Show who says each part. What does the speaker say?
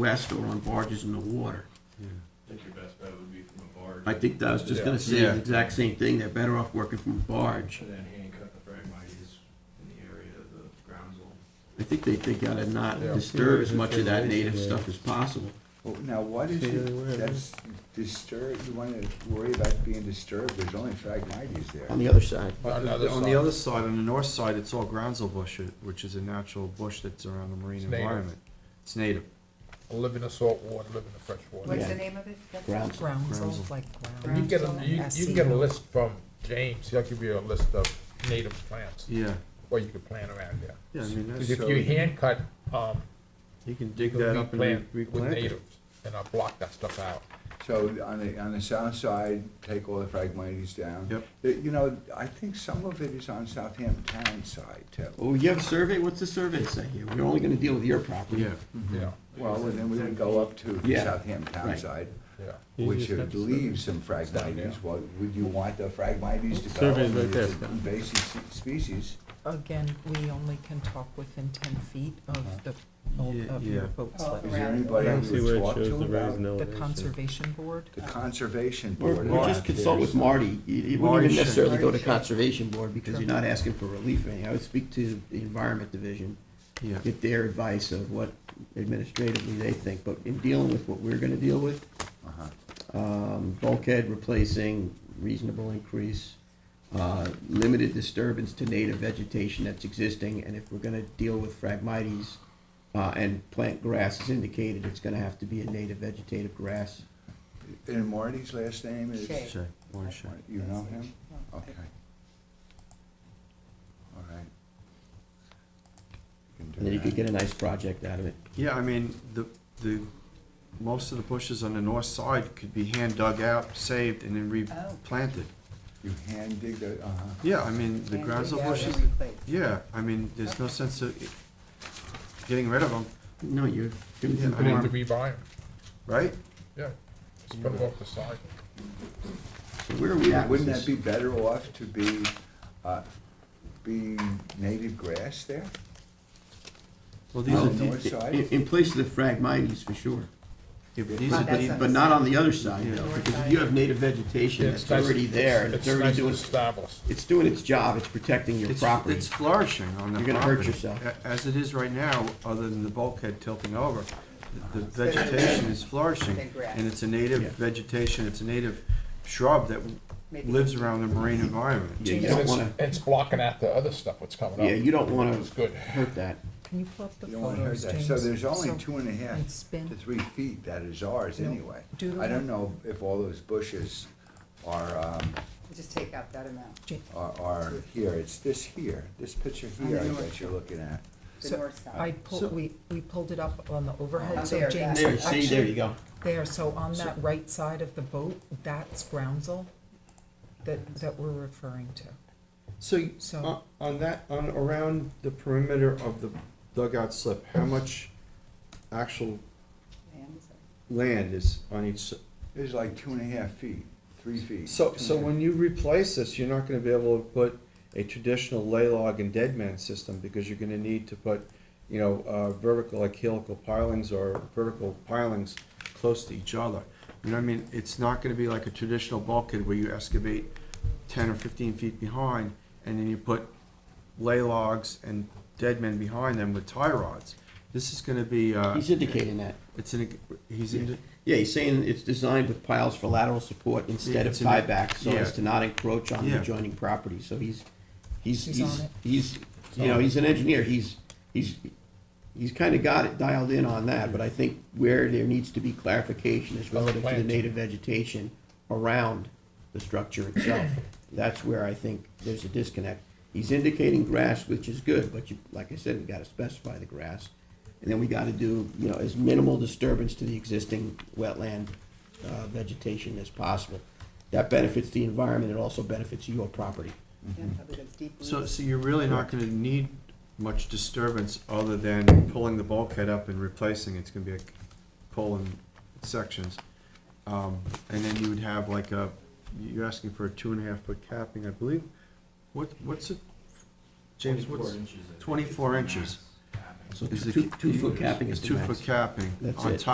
Speaker 1: west or on barges in the water.
Speaker 2: I think your best bet would be from a
Speaker 1: I
Speaker 2: barge,
Speaker 1: think I was just gonna say the exact same thing, they're better off working from a barge.
Speaker 2: and then handcuff the phragmites in the area of the groundsel.
Speaker 1: I think they, they gotta not
Speaker 3: Yeah.
Speaker 1: disturb as much of that native stuff as possible.
Speaker 4: Well, Now, what is
Speaker 3: Say the word.
Speaker 4: it that's disturbed, you wanna worry about being disturbed, there's only phragmites there.
Speaker 1: On the other side,
Speaker 3: On the
Speaker 5: On the
Speaker 3: other
Speaker 5: other side, on the north side, it's all groundsel bush, which is a natural bush that's around the marine
Speaker 3: It's native.
Speaker 5: environment. It's native.
Speaker 3: side, live in the salt water, live in the fresh water.
Speaker 6: What's
Speaker 1: Yeah.
Speaker 6: the name of it? That's-
Speaker 1: grounds.
Speaker 5: Groundsel.
Speaker 7: Groundsel, like
Speaker 3: And You
Speaker 7: ground.
Speaker 3: can get, a- you, you can get a list from James, he'll give you a list of native plants,
Speaker 5: Yeah,
Speaker 3: where you can plant around there.
Speaker 5: yeah, I mean, that's,
Speaker 3: 'Cause if you
Speaker 5: you
Speaker 3: hand cut, um,
Speaker 5: can dig
Speaker 3: you'll
Speaker 5: that up and re-
Speaker 3: replant with
Speaker 5: replant it.
Speaker 3: natives, and I'll block that stuff out.
Speaker 4: So on the, on the south side, take all the phragmites down.
Speaker 5: Yep.
Speaker 4: Uh, You know, I think some of it is on Southampton Town side too.
Speaker 1: Oh, you have a survey? What's the survey say here? We're only gonna deal with your property.
Speaker 5: Yeah,
Speaker 3: Yeah,
Speaker 4: Well, and then we would go up to the
Speaker 1: Yeah,
Speaker 4: Southampton Town
Speaker 1: right.
Speaker 4: side,
Speaker 3: yeah.
Speaker 4: which would leave some phragmites. Well, would you want the phragmites to go? Survey's right there. Invasive se- species.
Speaker 7: Again, we only can talk within ten feet of the,
Speaker 5: Yeah,
Speaker 7: of
Speaker 5: yeah.
Speaker 7: your boat's
Speaker 6: Oh,
Speaker 4: Uh-huh. Is
Speaker 7: level.
Speaker 4: there
Speaker 6: Around.
Speaker 4: anybody
Speaker 6: I don't
Speaker 4: you would talk to about it?
Speaker 7: The conservation board,
Speaker 4: the conservation
Speaker 1: Or,
Speaker 4: board? Uh-huh.
Speaker 1: or just consult with Marty. You- You wouldn't even
Speaker 5: Marty should.
Speaker 1: necessarily go to
Speaker 7: Marty should.
Speaker 1: Conservation Board because you're not asking for relief or anything. I would speak to the Environment Division,
Speaker 5: yeah.
Speaker 1: get their advice of what administratively they think. But in dealing with what we're gonna deal with,
Speaker 4: Uh-huh.
Speaker 1: um, bulkhead replacing, reasonable increase, uh, limited disturbance to native vegetation that's existing, and if we're gonna deal with phragmites, uh, and plant grass is indicated, it's gonna have to be a native vegetative grass.
Speaker 4: And Marty's last name is?
Speaker 6: Shea.
Speaker 5: Shay, Warren Shay.
Speaker 4: You know him?
Speaker 6: No,
Speaker 4: Okay. All right. You can do
Speaker 1: And then you could
Speaker 4: that.
Speaker 1: get a nice project out of it.
Speaker 5: Yeah, I mean, the, the, most of the bushes on the north side could be hand dug out, saved, and then replanted.
Speaker 4: You hand dig the, uh-huh.
Speaker 5: Yeah, I mean, the
Speaker 6: And dig
Speaker 5: groundsel
Speaker 6: out
Speaker 5: bushes,
Speaker 6: every place.
Speaker 5: yeah, I mean, there's no sense of getting rid of them,
Speaker 1: No, you're. doing
Speaker 5: Yeah, I
Speaker 3: I need to
Speaker 1: harm.
Speaker 3: rebuy 'em.
Speaker 5: right?
Speaker 3: yeah, just put 'em off the side.
Speaker 1: So Where are we at? with
Speaker 4: Wouldn't
Speaker 1: this?
Speaker 4: that be better off to be, uh, be native grass there?
Speaker 5: Well, these
Speaker 1: These
Speaker 5: are,
Speaker 4: on
Speaker 1: are
Speaker 4: the
Speaker 5: de-
Speaker 4: north side?
Speaker 1: In, in place of the phragmites, for sure,
Speaker 5: yeah, but these
Speaker 6: Well,
Speaker 5: are,
Speaker 6: that's
Speaker 5: de-
Speaker 6: a-
Speaker 1: but not on the other side,
Speaker 5: Yeah.
Speaker 1: though, because if you have native vegetation
Speaker 3: It's
Speaker 1: that's
Speaker 3: nice-
Speaker 1: already there, and it's already
Speaker 3: nice and
Speaker 1: doing,
Speaker 3: Established.
Speaker 1: it's doing its job, it's protecting your
Speaker 5: it's,
Speaker 1: property.
Speaker 5: it's flourishing on the property.
Speaker 1: You're gonna hurt yourself.
Speaker 5: A- As it is right now, other than the bulkhead tilting over, the the vegetation is flourishing.
Speaker 6: Than grass.
Speaker 5: And it's a native
Speaker 1: Yeah.
Speaker 5: vegetation, it's a native shrub that w-
Speaker 6: Maybe.
Speaker 5: lives around the marine environment.
Speaker 1: Yeah, you
Speaker 3: And
Speaker 1: don't
Speaker 3: it's-
Speaker 1: wanna,
Speaker 3: It's blocking out the other stuff that's coming up.
Speaker 1: yeah, you don't wanna
Speaker 3: It's good.
Speaker 1: hurt that.
Speaker 7: can you pull up the
Speaker 4: You don't wanna hurt
Speaker 7: photos,
Speaker 4: that.
Speaker 7: James?
Speaker 4: So there's only
Speaker 7: So-
Speaker 4: two and a half
Speaker 7: and spin.
Speaker 4: to three feet that is ours
Speaker 7: No,
Speaker 4: anyway.
Speaker 7: do the
Speaker 4: I don't
Speaker 7: one-
Speaker 4: know if all those bushes are, um,
Speaker 6: Just take out that amount,
Speaker 4: are, are here. It's this here, this picture
Speaker 6: On
Speaker 4: here,
Speaker 6: the
Speaker 4: I
Speaker 6: north
Speaker 4: guess you're looking at.
Speaker 6: the
Speaker 7: So
Speaker 6: north side.
Speaker 7: I
Speaker 5: So-
Speaker 7: pulled, we, we pulled it up on the
Speaker 6: Oh,
Speaker 7: overhead, so
Speaker 6: there,
Speaker 7: James.
Speaker 6: that-
Speaker 1: There, see, there you go.
Speaker 7: There, so on that right side of the boat, that's groundsel that, that we're referring to.
Speaker 5: So,
Speaker 7: So-
Speaker 5: on- on that, on, around the perimeter of the dugout slip, how much actual
Speaker 6: And is that-
Speaker 5: land is on each? s-
Speaker 4: It's like two and a half feet, three feet.
Speaker 5: So,
Speaker 4: two
Speaker 5: so
Speaker 4: and a half.
Speaker 5: when you replace this, you're not gonna be able to put a traditional lay log and dead man system, because you're gonna need to put, you know, uh, vertical, like helical pilings or vertical pilings close to each other. You know what I mean? It's not gonna be like a traditional bulkhead where you excavate ten or fifteen feet behind, and then you put lay logs and dead men behind them with tie rods. This is gonna be, uh,
Speaker 1: He's indicating that.
Speaker 5: it's an, he's in,
Speaker 1: Yeah, he's saying it's designed with piles for lateral support instead of
Speaker 5: It's an-
Speaker 1: tieback, so as
Speaker 5: yeah.
Speaker 1: to not encroach on the
Speaker 5: Yeah.
Speaker 1: adjoining property, so he's, he's,
Speaker 7: He's
Speaker 1: he's,
Speaker 7: on it.
Speaker 1: he's, you know, he's an engineer, he's, he's, he's kinda got it dialed in on that, but I think where there needs to be clarification is relative to the
Speaker 3: plans.
Speaker 1: native vegetation around the structure itself. That's where I think there's a disconnect. He's indicating grass, which is good, but you, like I said, we gotta specify the grass. And then we gotta do, you know, as minimal disturbance to the existing wetland, uh, vegetation as possible. That benefits the environment, it also benefits your property.
Speaker 6: yeah, probably those deep
Speaker 5: So,
Speaker 6: roots.
Speaker 5: so you're really not gonna need much disturbance other than pulling the bulkhead up and replacing, it. it's gonna be like pulling sections. Um, and then you would have like a, you're asking for a two and a half foot capping, I believe. What, what's it, James, what's?
Speaker 2: 24 inches, I think, is
Speaker 5: 24
Speaker 2: the
Speaker 5: inches.
Speaker 2: max.
Speaker 1: So
Speaker 5: is it-
Speaker 1: two, two foot capping is
Speaker 5: It's
Speaker 1: the
Speaker 5: two
Speaker 1: max.
Speaker 5: foot capping
Speaker 1: That's
Speaker 5: on
Speaker 1: it.
Speaker 5: top